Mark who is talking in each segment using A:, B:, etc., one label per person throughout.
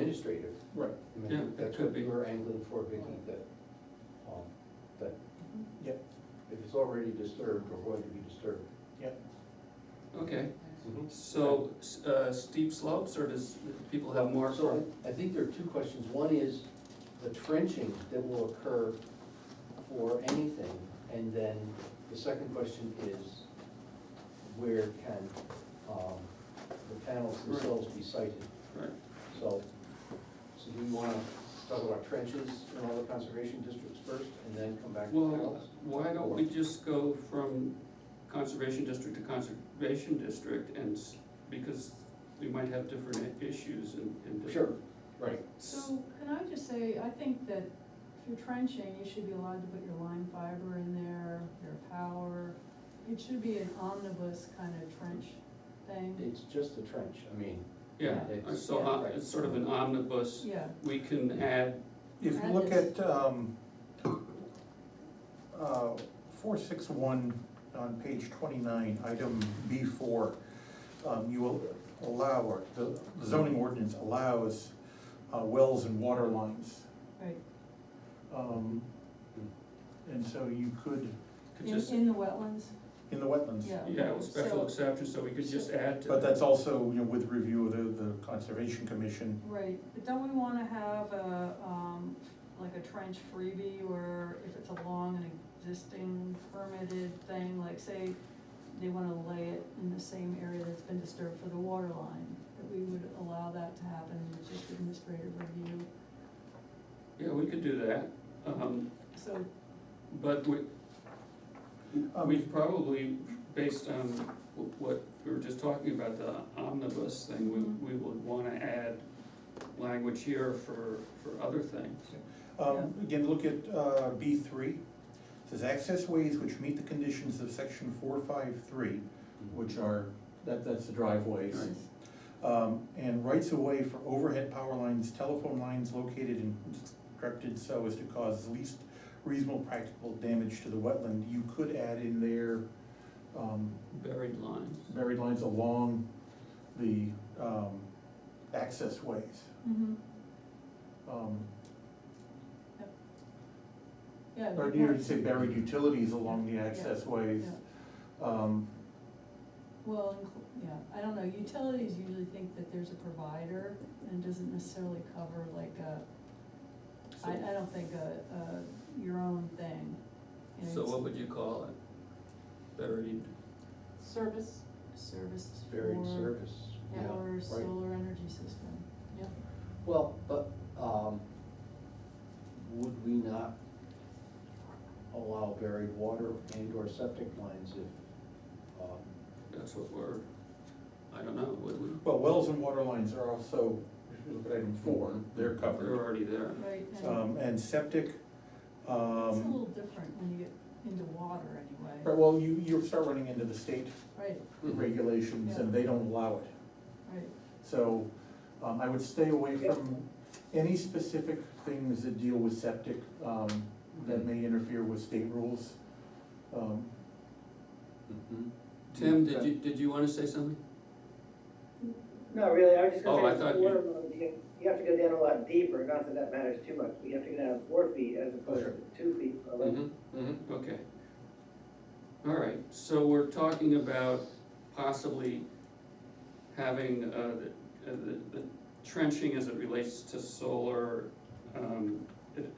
A: administrator.
B: Right.
A: I mean,
C: Yeah, it
A: That's
C: could
A: what
C: be.
A: we were angling for, Vicky, that, um, that
B: Yep,
A: if it's already disturbed or going to be disturbed.
B: yep.
C: Okay, Mm-hmm. so, s- uh, steep slopes, or does people have more?
A: So I I think there are two questions. One is the trenching that will occur for anything. And then the second question is where can, um, the panels
C: Right.
A: themselves be sited?
C: Right,
A: So, so do we wanna talk about trenches in all the conservation districts first and then come back to
C: well,
A: panels?
C: why don't we just go from conservation district to conservation district and, s- because we might have different i- issues and, and. different-
A: Sure, right.
C: S-
D: So can I just say, I think that if you're trenching, you should be allowed to put your line fiber in there, your power. It should be an omnibus kind of trench thing.
A: It's just the trench, I mean,
C: Yeah,
A: Yeah.
C: so uh, it's sort of an omnibus,
D: Yeah,
C: we can add,
B: If you look at, um, uh, four, six, one, on page twenty-nine, item B four, um, you will allow, or the zoning ordinance allows, uh, wells and water lines.
D: right,
B: Um, and so you could,
C: could
D: in,
C: just,
D: in the wetlands,
B: in the wetlands.
D: yeah.
C: yeah, with special
D: So-
C: exception, so we could just add to.
B: But
C: that.
B: that's also, you know, with review of the, the conservation commission,
D: Right, but don't we wanna have a, um, like a trench freebie where if it's along an existing permitted thing, like say they wanna lay it in the same area that's been disturbed for the water line, that we would allow that to happen, with just administrative review,
C: Yeah, we could do that, um,
D: so,
C: but we,
B: Um,
C: Uh, We've probably, based on wh- what we were just talking about, the omnibus thing,
D: Mhm.
C: we, we would wanna add language here for, for other things.
B: Um, Again, look at uh, B three. Says access ways which meet the conditions of section four five three, which are, that, that's the driveways.
C: Right.
B: Um, And rights of way for overhead power lines, telephone lines located and constructed so as to cause least reasonable practical damage to the wetland. You could add in there um,
C: Buried lines.
B: buried lines along the um, access ways.
D: mhm,
B: Um,
D: yeah.
B: Or
D: good
B: do you
D: point.
B: say buried utilities along the access ways? Um,
D: Well, inclu- yeah, I don't know, utilities usually think that there's a provider and it doesn't necessarily cover like a I, I don't think a, a, your own thing. you know,
C: So
D: it's
C: what would you call it? Buried,
E: service,
D: Service
A: It's
D: for,
A: buried service.
D: yeah, or
A: right.
D: solar energy system, yeah.
A: Well, but, um, would we not allow buried water and or septic lines if, um,
C: that's what we're, I don't know, would we?
B: Well, wells and water lines are also, if you look at item four, they're
C: They're
B: covered.
C: already there.
D: Right, and
B: Um, and septic,
D: it's a
B: um,
D: little different when you get into water
B: right,
D: anyway,
B: well, you, you start running into the state
D: right,
C: Mm-hmm.
B: regulations and they don't allow it.
D: right,
B: So, um, I would stay away from any specific things that deal with septic, um, that may interfere with state rules. Um,
A: Mhm.
C: Tim, did you, did you wanna say something?
F: No, really, I was just
C: Oh, I
F: gonna say,
C: thought
F: with
C: you-
F: water load, you, you have to go down a lot deeper, not that that matters too much, but you have to go down four feet as opposed
A: Sure.
F: to two feet. for a level.
C: Mm-hmm.
A: mhm.
C: Okay. All right, so we're talking about possibly having, uh, the, uh, the- the trenching as it relates to solar, um,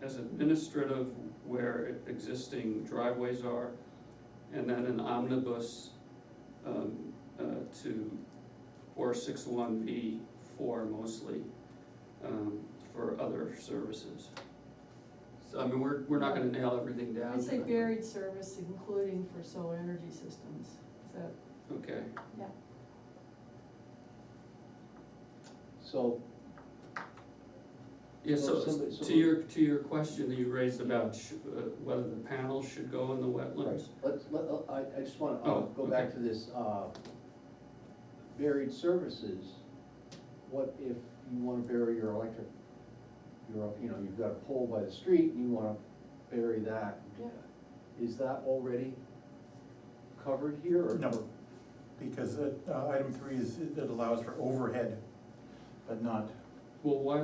C: as administrative where existing driveways are, and then an omnibus, um, uh, to four six one B four mostly, um, for other services. So, I mean, we're, we're not gonna nail everything down.
D: I'd say
C: but-
D: buried service including for solar energy systems, so,
C: Okay,
D: yeah.
A: So,
C: yeah,
A: Well,
C: so,
A: somebody-
C: to
A: somebody-
C: your, to your question that you raised about sh- uh, whether the panels should go in the
A: right,
C: wetlands.
A: let's, let, I, I just wanna, uh,
C: Oh,
A: go back
C: okay.
A: to this, uh, buried services. What if you wanna bury your electric, your, you know, you've got a pole by the street and you wanna bury that?
D: Yeah.
A: Is that already covered here or?
B: No, because, uh, item three is, it allows for overhead, but not
C: Well, why